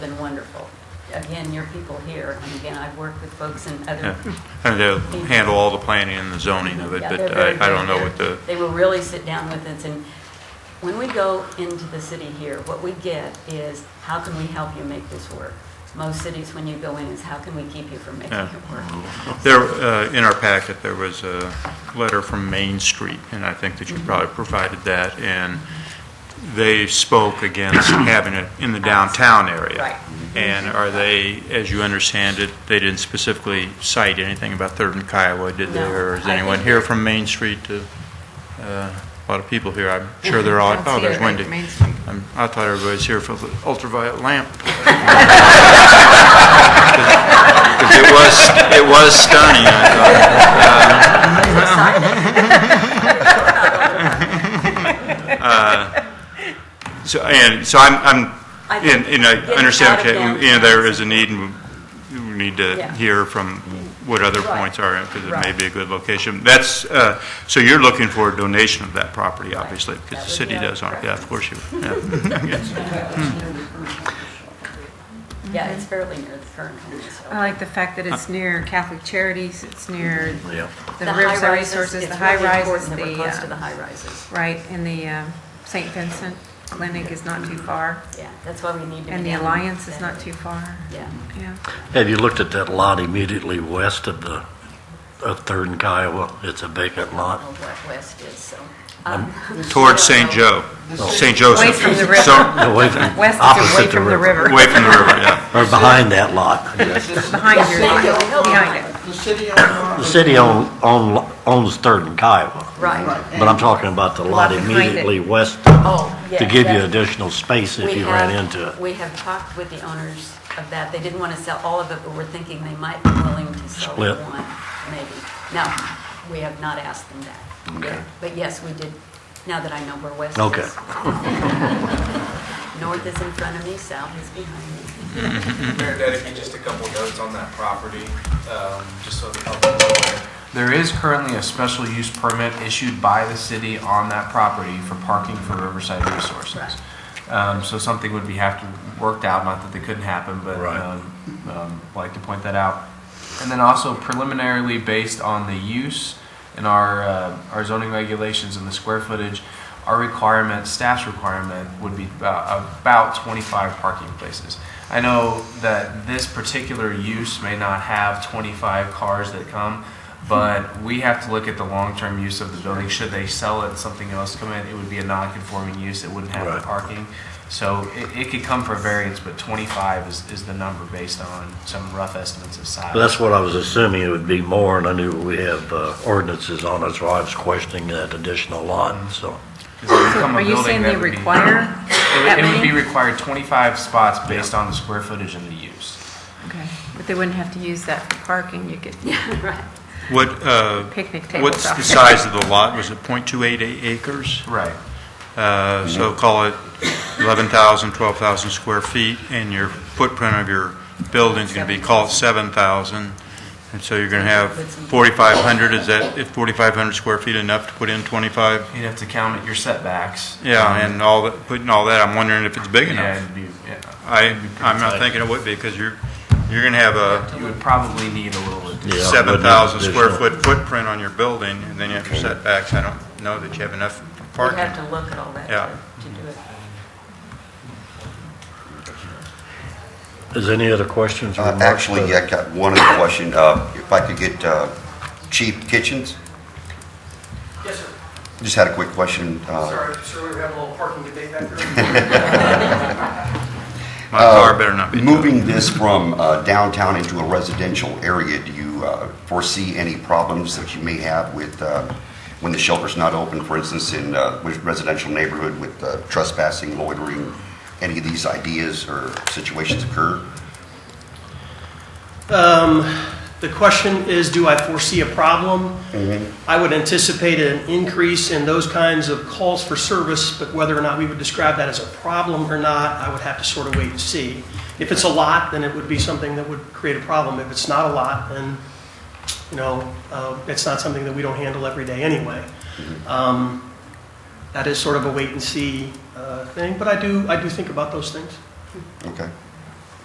been wonderful. Again, your people here, and again, I've worked with folks in other. Yeah, and they'll handle all the planning and the zoning of it, Yeah, but they're very I, I don't good know here. what the, They will really sit down with us, and when we go into the city here, what we get is, how can we help you make this work? Most cities, when you go in, is how can we keep you from making Yeah. it work? there, uh, in our packet, there was a letter from Main Street, and I think that Mm-hmm. you probably provided that, and they spoke against having it in the downtown area. Right. And are they, as you understand it, they didn't specifically cite anything about Third and Kiowa, did they? No, Or is I anyone think- here from Main Street to, uh, a lot of people here, I'm sure they're all, oh, there's Wendy. Main Street. I'm- I thought everybody was here for the ultraviolet lamp. 'Cause It was, it was stunning, I thought. Uh, So, and, so I'm, I I'm, and think and I getting understand, out of okay, downtown you know, there is is a need, and we we need to Yeah. hear from what other Right. points are, because it may Right. be a good location. That's, uh, so you're looking for a donation of that property, obviously, That because the would city be our does, aren't- yeah, of course you, yeah. Yes. Yeah, it's fairly near the current home, I so. like the fact that it's near Catholic Charities, it's near Yeah. the Riverside high-rises, Resources, the it's high really rises, important that we're the, close to the uh, high rises. right, and the uh, St. Vincent Clinic is not too far, Yeah, that's why we need to be. and the down Alliance is that not way. too far. Yeah. Yeah. Have you looked at that lot immediately west of the, of Third and Kiowa? It's a vacant I lot. don't know what West is, so. um, uh, Towards St. Joe, St. Joseph. Away from the river. So- Away from, West is away opposite the from the river. river, Away from the river, yeah. Or behind that lot. behind your, Yeah. behind it. The city owner. The city own, own, owns Third and Kiowa, Right. but I'm talking about the lot Lot behind it. immediately west Oh, yeah. to give you that- additional space if we you ran have- into it. We have talked with the owners of that. They didn't want to sell all of it, but we're thinking they might be willing to sell Split. one, maybe. No, we have not asked them that. Okay. But yes, we did, now that I know where west is. Okay. North is in front of me, south is behind me. Mayor Dedekey, just a couple notes on that property, um, just so the public is aware. There is currently a special use permit issued by the city on that property for parking for Riverside Resources. Um, So something would be have to worked out, not that they couldn't happen, but Right. um, um, like to point that out. And then also preliminarily based on the use and our, uh, our zoning regulations and the square footage, our requirement, staff's requirement would be uh, about 25 parking places. I know that this particular use may not have 25 cars that come, but we have to look at the long-term use of the building. Should they sell it, something else come in, it would be a non-conforming use, it wouldn't have the Right. parking. So it, it could come for variance, but 25 is, is the number based on some rough estimates of size. But That's what I was assuming it would be more, and I knew we have uh, ordinances on it, so I was questioning that additional lot, so. Become a Are you building saying that they would be- require It that would- it would be many? required 25 spots based on the square footage and the use. Okay, but they wouldn't have to use that for parking, you could Yeah, right. What, uh, picnic tables what's out the there. size of the lot? Was it .288 acres? Right. Uh, So call it 11,000, 12,000 square feet, and your footprint of your building's going to be, call it 7,000, and so you're going to have 4,500, is that, is 4,500 square feet enough to put in 25? You'd have to count your setbacks. Um, Yeah, and all, that- putting all that, I'm wondering if it's big Yeah, enough. it'd be, yeah. I, I'm not thinking it would be, because you're, you're going to have a You would probably need a little additional. Yeah, but not 7,000 square additional. foot footprint on your building, and then you have your setbacks, I don't know that you have enough We have parking. to look at all that Yeah. to to do it. Is any other questions or Uh, remarks? Actually, I got one other question. Uh, If I could get uh, Chief Kitchens? Yes, sir. Just had a quick question. Uh, Sorry, sir, we were having a little parking debate back there. My car better not be towed. Uh, Moving this from uh, downtown into a residential area, do you uh, foresee any problems that you may have with, uh, when the shelter's not open, for instance, in uh, with residential neighborhood with uh, trespassing, loitering? Any of these ideas or situations occur? Um, The question is, do I foresee a problem? Mm-hmm. I would anticipate an increase in those kinds of calls for service, but whether or not we would describe that as a problem or not, I would have to sort of wait and see. If it's a lot, then it would be something that would create a problem. If it's not a lot, then, you know, uh, it's not something that we don't handle every day anyway. Mm-hmm. Um, That is sort of a wait and see uh, thing, but I do, I do think about those things. Okay.